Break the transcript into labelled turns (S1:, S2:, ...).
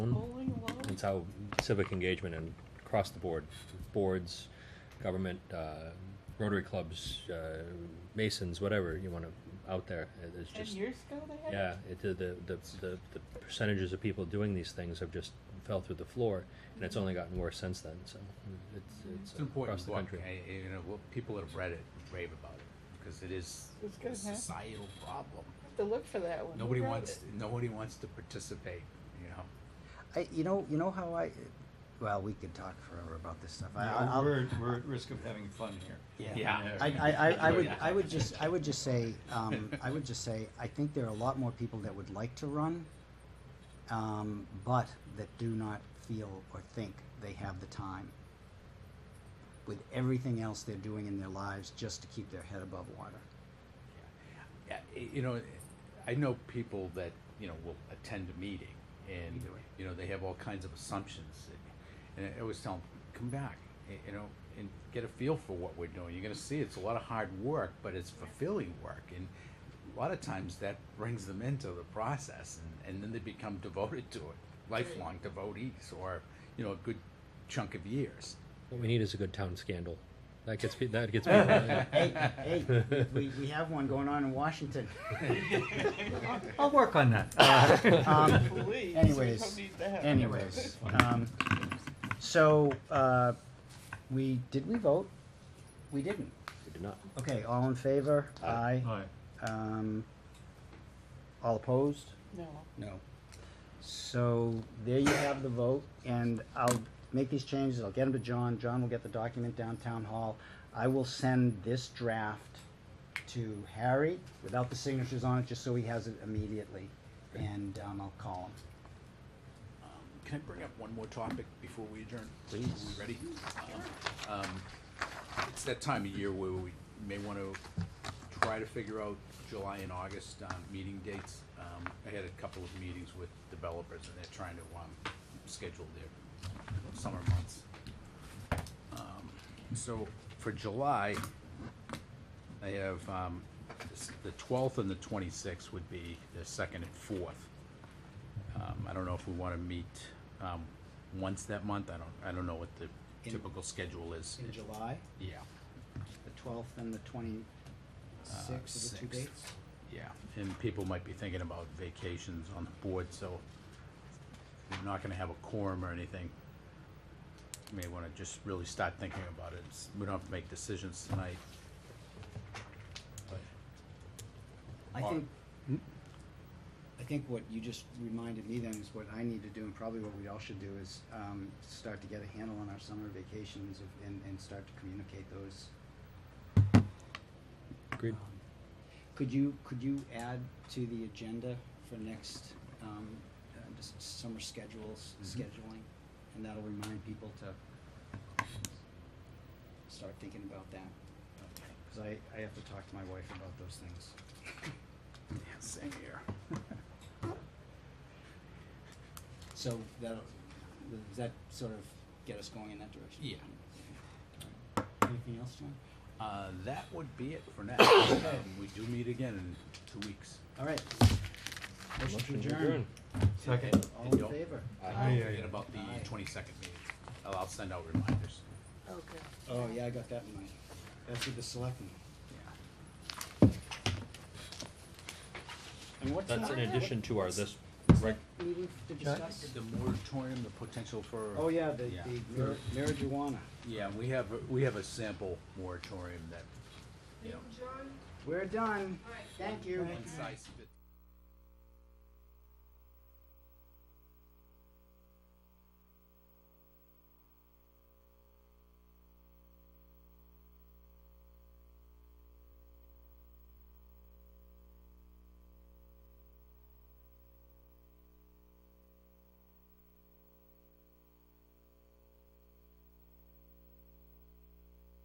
S1: it's how civic engagement and across the board, boards, government, uh, Rotary clubs, uh, Masons, whatever you want to out there. It- It's
S2: Ten
S1: just
S2: years ago they had
S1: yeah,
S2: it?
S1: it, the, the the the the percentages of people doing these things have just fell through the floor, and it's only gotten worse since then. So mm, it's
S3: It's
S1: it's
S3: an important
S1: across the
S3: book,
S1: country.
S3: and, and, you know, well, people that have read it rave about it, because it is
S2: It's good,
S3: a
S2: huh?
S3: societal problem.
S2: Have To look for that one. Who
S3: Nobody
S2: wrote
S3: wants,
S2: it?
S3: nobody wants to participate, you know?
S4: I, you know, you know how I. Well, we could talk forever about this stuff. I, I, I'll-
S5: We're, we're at risk of having fun here.
S3: Yeah.
S4: I, I, I, I would, I would just, I would just say, um, I would just say, I think there are a lot more people that would like to run, um, but that do not feel or think they have the time. With everything else they're doing in their lives, just to keep their head above water.
S3: Yeah, y- you know, I know people that, you know, will attend a meeting and,
S4: Either way.
S3: you know, they have all kinds of assumptions. And I always tell them, come back, y- you know, and get a feel for what we're doing. You're gonna see it's a lot of hard work, but it's fulfilling work. And a lot of times that brings them into the process and, and then they become devoted to it, lifelong devotees or, you know, a good chunk of years.
S1: What we need is a good town scandal. That gets pe- that gets people.
S4: Hey, hey, we, we have one going on in Washington.
S5: I'll work on that. Uh,
S4: Um,
S2: Please, we don't
S4: Anyways,
S2: need that.
S4: anyways, um, so, uh, we, did we vote? We didn't.
S1: We do not.
S4: Okay, all in favor? Aye.
S5: all right.
S4: Um, all opposed?
S2: No.
S4: No. So, there you have the vote, and I'll make these changes, I'll get them to John, John will get the document down town hall. I will send this draft to Harry without the signatures on it, just so he has it immediately, and, um, I'll call him.
S3: Um, Can I bring up one more topic before we adjourn?
S4: Please.
S3: Are we ready? Um, It's that time of year where we may want to try to figure out July and August um, meeting dates. Um, I had a couple of meetings with developers, and they're trying to um, schedule their summer months. Um, So for July, I have um, s- the 12th and the 26th would be the second and fourth. Um, I don't know if we wanna meet, um, once that month, I don't, I don't know what the
S4: In-
S3: typical schedule is.
S4: In July?
S3: Yeah.
S4: The twelfth and the
S3: uh,
S4: twenty-sixth are the two
S3: 6th.
S4: dates?
S3: Yeah, and people might be thinking about vacations on the board, so we're not gonna have a quorum or anything. You May wanna just really start thinking about it, It's- we don't have to make decisions tonight.
S4: I
S3: Or-
S4: think, I think what you just reminded me then is what I need to do, and probably what we all should do, is, um, start to get a handle on our summer vacations of- and, and start to communicate those.
S1: Agreed.
S4: Um, Could you, could you add to the agenda for next, um, uh, just summer schedules, scheduling? And that'll remind people to start thinking about that. Cause I, I have to talk to my wife about those things.
S3: Yeah, Same here.
S4: So that'll, does that sort of get us going in that direction?
S3: Yeah.
S4: All right. Anything else, John?
S3: Uh, that would be it for now. Um, We do meet again in two weeks.
S4: All right. Motion to adjourn.
S5: Second.
S4: All in favor?
S3: Don't
S5: Aye, aye,
S3: forget
S5: aye.
S3: about the
S4: Aye.
S3: twenty-second meeting. I'll, I'll send out reminders.
S2: Okay.
S4: Oh, yeah, I got that in mind. That's with the selectmen. And what's that?
S1: That's in addition to our this.
S4: What's
S1: Rec-
S4: that meeting to discuss?
S3: The moratorium, the potential for.
S4: Oh, yeah, the,
S3: Yeah.
S4: the mar- marijuana.
S3: Yeah, we have, we have a sample moratorium that, you know.
S4: We're done. Thank you.
S3: one size fits-